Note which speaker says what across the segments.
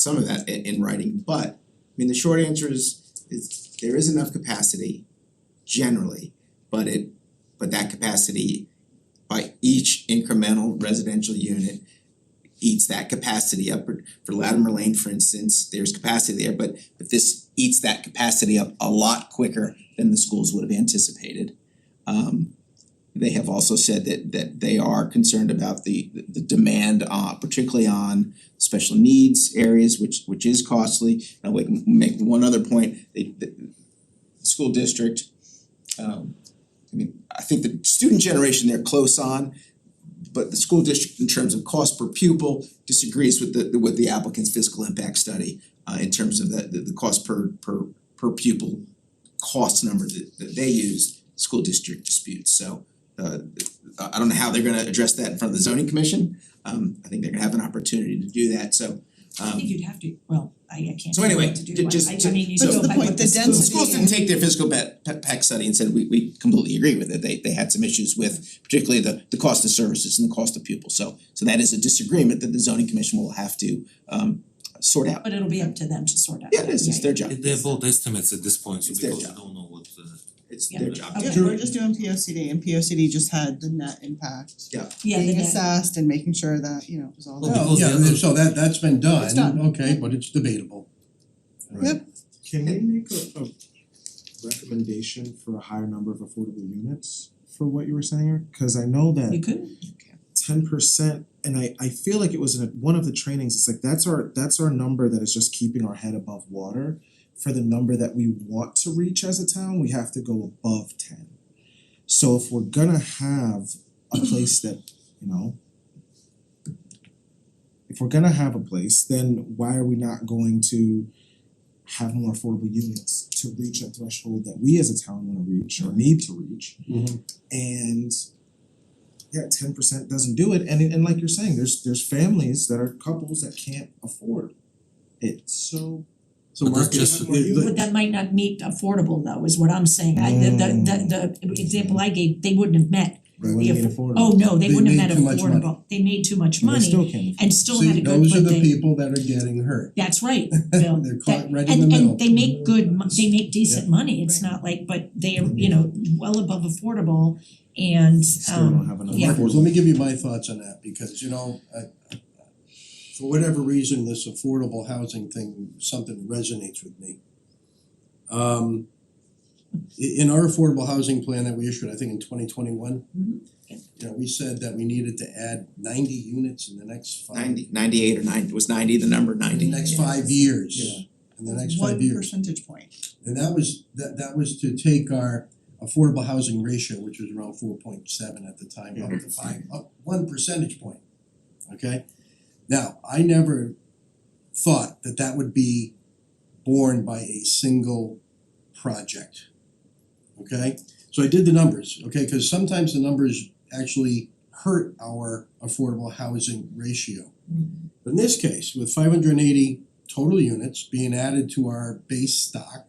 Speaker 1: some of that in in writing, but I mean, the short answer is is there is enough capacity generally, but it but that capacity by each incremental residential unit eats that capacity up for for Latimer Lane, for instance, there's capacity there, but but this eats that capacity up a lot quicker than the schools would have anticipated. Um they have also said that that they are concerned about the the demand uh particularly on special needs areas, which which is costly. And I'll make make one other point, the the the school district, um I mean, I think the student generation they're close on, but the school district in terms of cost per pupil disagrees with the with the applicant's fiscal impact study uh in terms of the the the cost per per per pupil cost number that that they use, school district disputes. So uh I I don't know how they're gonna address that in front of the zoning commission, um I think they're gonna have an opportunity to do that, so
Speaker 2: I think
Speaker 1: um
Speaker 2: you'd have to, well, I I can't
Speaker 1: so
Speaker 2: tell you
Speaker 1: anyway,
Speaker 2: what to do,
Speaker 1: ju-
Speaker 2: but
Speaker 1: just
Speaker 2: I
Speaker 1: to-
Speaker 2: I mean, you
Speaker 1: so-
Speaker 2: go
Speaker 3: the
Speaker 2: by
Speaker 3: point,
Speaker 2: what
Speaker 3: the
Speaker 2: the
Speaker 1: the
Speaker 2: school
Speaker 3: density-
Speaker 1: schools didn't take their physical pa- pa- pack study and said we we completely agree with it, they they had some issues with particularly the the cost of services and the cost of pupils, so so that is a disagreement that the zoning commission will have to um sort out.
Speaker 2: But it'll be up to them to sort out.
Speaker 1: Yeah, it is, it's their job,
Speaker 4: They- They're both estimates at this point, so
Speaker 1: It's their
Speaker 4: because
Speaker 1: job.
Speaker 4: you don't know what uh
Speaker 1: it's
Speaker 2: Oh, Yeah.
Speaker 1: their job.
Speaker 3: Yeah, we're just doing P O C D and P O C D just had the net impact.
Speaker 2: Yeah, the
Speaker 3: Being
Speaker 2: net-
Speaker 3: assessed and making sure that, you know, it was all
Speaker 4: Well,
Speaker 3: there.
Speaker 4: because the
Speaker 5: Yeah,
Speaker 4: other-
Speaker 5: so that that's been
Speaker 3: It's
Speaker 5: done,
Speaker 3: done.
Speaker 5: okay, but it's debatable.
Speaker 3: Yep.
Speaker 6: Can we make a a recommendation for a higher number of affordable units for what you were saying? Cause I know
Speaker 2: You
Speaker 6: that
Speaker 2: could,
Speaker 6: ten percent, and I I feel like it was in a- one of the trainings, it's like that's our that's our number that is just keeping our head above water. For the number that we want to reach as a town, we have to go above ten. So if we're gonna have a place that, you know, if we're gonna have a place, then why are we not going to have more affordable units to reach a threshold that we as a town wanna reach or need to reach?
Speaker 5: Mm-hmm.
Speaker 6: And yeah, ten percent doesn't do it, and and like you're saying, there's there's families that are couples that can't afford it, so. So
Speaker 4: But that's
Speaker 6: Mark, you
Speaker 4: just-
Speaker 6: have more units.
Speaker 2: but that might not meet affordable though, is what I'm saying, I, the the the the example I gave, they wouldn't have met.
Speaker 6: They
Speaker 2: the
Speaker 6: wouldn't
Speaker 2: aff-
Speaker 6: get affordable.
Speaker 2: Oh, no, they
Speaker 5: They
Speaker 2: wouldn't have
Speaker 5: made
Speaker 2: met
Speaker 5: too much money.
Speaker 2: affordable, they made too much
Speaker 6: And they
Speaker 2: money
Speaker 6: still can't.
Speaker 2: and still had a
Speaker 5: See,
Speaker 2: good, but they.
Speaker 5: those are the people that are getting hurt.
Speaker 2: That's right, Bill,
Speaker 5: They're
Speaker 2: that,
Speaker 5: caught right in the
Speaker 2: and
Speaker 5: middle.
Speaker 2: and they make good, mo- they make decent money, it's not like, but they are, you know, well above affordable and
Speaker 6: Still don't
Speaker 2: um,
Speaker 6: have enough.
Speaker 2: yeah.
Speaker 5: Marcus, let me give you my thoughts on that, because you know, I for whatever reason, this affordable housing thing, something resonates with me. Um i- in our affordable housing plan that we issued, I think in twenty twenty one,
Speaker 2: Mhm.
Speaker 5: you know, we said that we needed to add ninety units in the next five
Speaker 1: Ninety, ninety-eight or ninety, was ninety the number,
Speaker 5: in
Speaker 1: ninety?
Speaker 5: the
Speaker 1: Yeah.
Speaker 5: next five years, in the next five years.
Speaker 3: One percentage point.
Speaker 5: And that was, that that was to take our affordable housing ratio, which was around four point seven at the time, up to five, up one percentage point. Okay, now, I never thought that that would be borne by a single project. Okay, so I did the numbers, okay, cause sometimes the numbers actually hurt our affordable housing ratio.
Speaker 2: Mm-hmm.
Speaker 5: But in this case, with five hundred and eighty total units being added to our base stock,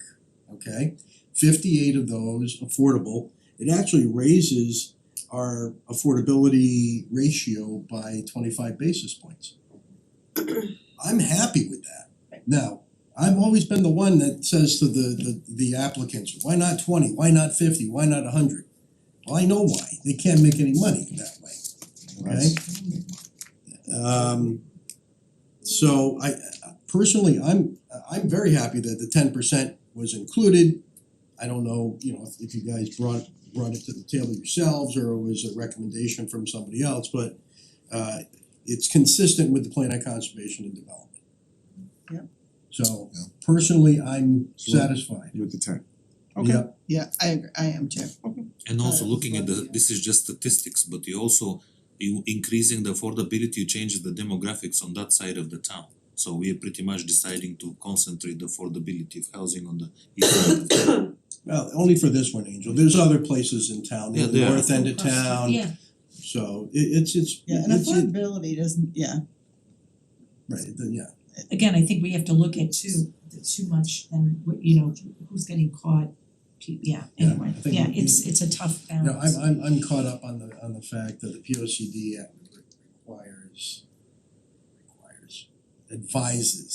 Speaker 5: okay? Fifty-eight of those affordable, it actually raises our affordability ratio by twenty-five basis points. I'm happy with that. Now, I've always been the one that says to the the the applicants, why not twenty, why not fifty, why not hundred? Well, I know why, they can't make any money that way, okay? Um so I personally, I'm I'm very happy that the ten percent was included. I don't know, you know, if if you guys brought brought it to the table yourselves or it was a recommendation from somebody else, but uh it's consistent with the plan of conservation and development.
Speaker 3: Yep.
Speaker 5: So
Speaker 6: Yeah.
Speaker 5: personally, I'm
Speaker 6: So-
Speaker 5: satisfied.
Speaker 6: With the ten.
Speaker 5: Yep.
Speaker 3: Yeah, I agree, I am too.
Speaker 4: and also
Speaker 3: Uh,
Speaker 4: looking at the,
Speaker 3: yeah.
Speaker 4: this is just statistics, but you also you increasing the affordability changes the demographics on that side of the town. So we are pretty much deciding to concentrate the affordability of housing on the east side of town.
Speaker 5: Well, only for this one, Angel. There's other places in town,
Speaker 4: Yeah,
Speaker 5: in the
Speaker 4: there are.
Speaker 5: north end of town.
Speaker 2: Yeah,
Speaker 5: So it it's it's
Speaker 3: Yeah, and
Speaker 5: it's- it-
Speaker 3: affordability doesn't, yeah,
Speaker 5: right, the- yeah.
Speaker 2: again, I think we have to look at too, too much and, what- you know, who's getting caught, pe- yeah,
Speaker 5: Yeah,
Speaker 2: anyway,
Speaker 5: I think
Speaker 2: yeah,
Speaker 5: we-
Speaker 2: it's it's a tough
Speaker 5: No,
Speaker 2: balance.
Speaker 5: I'm I'm I'm caught up on the on the fact that the P O C D requires requires advises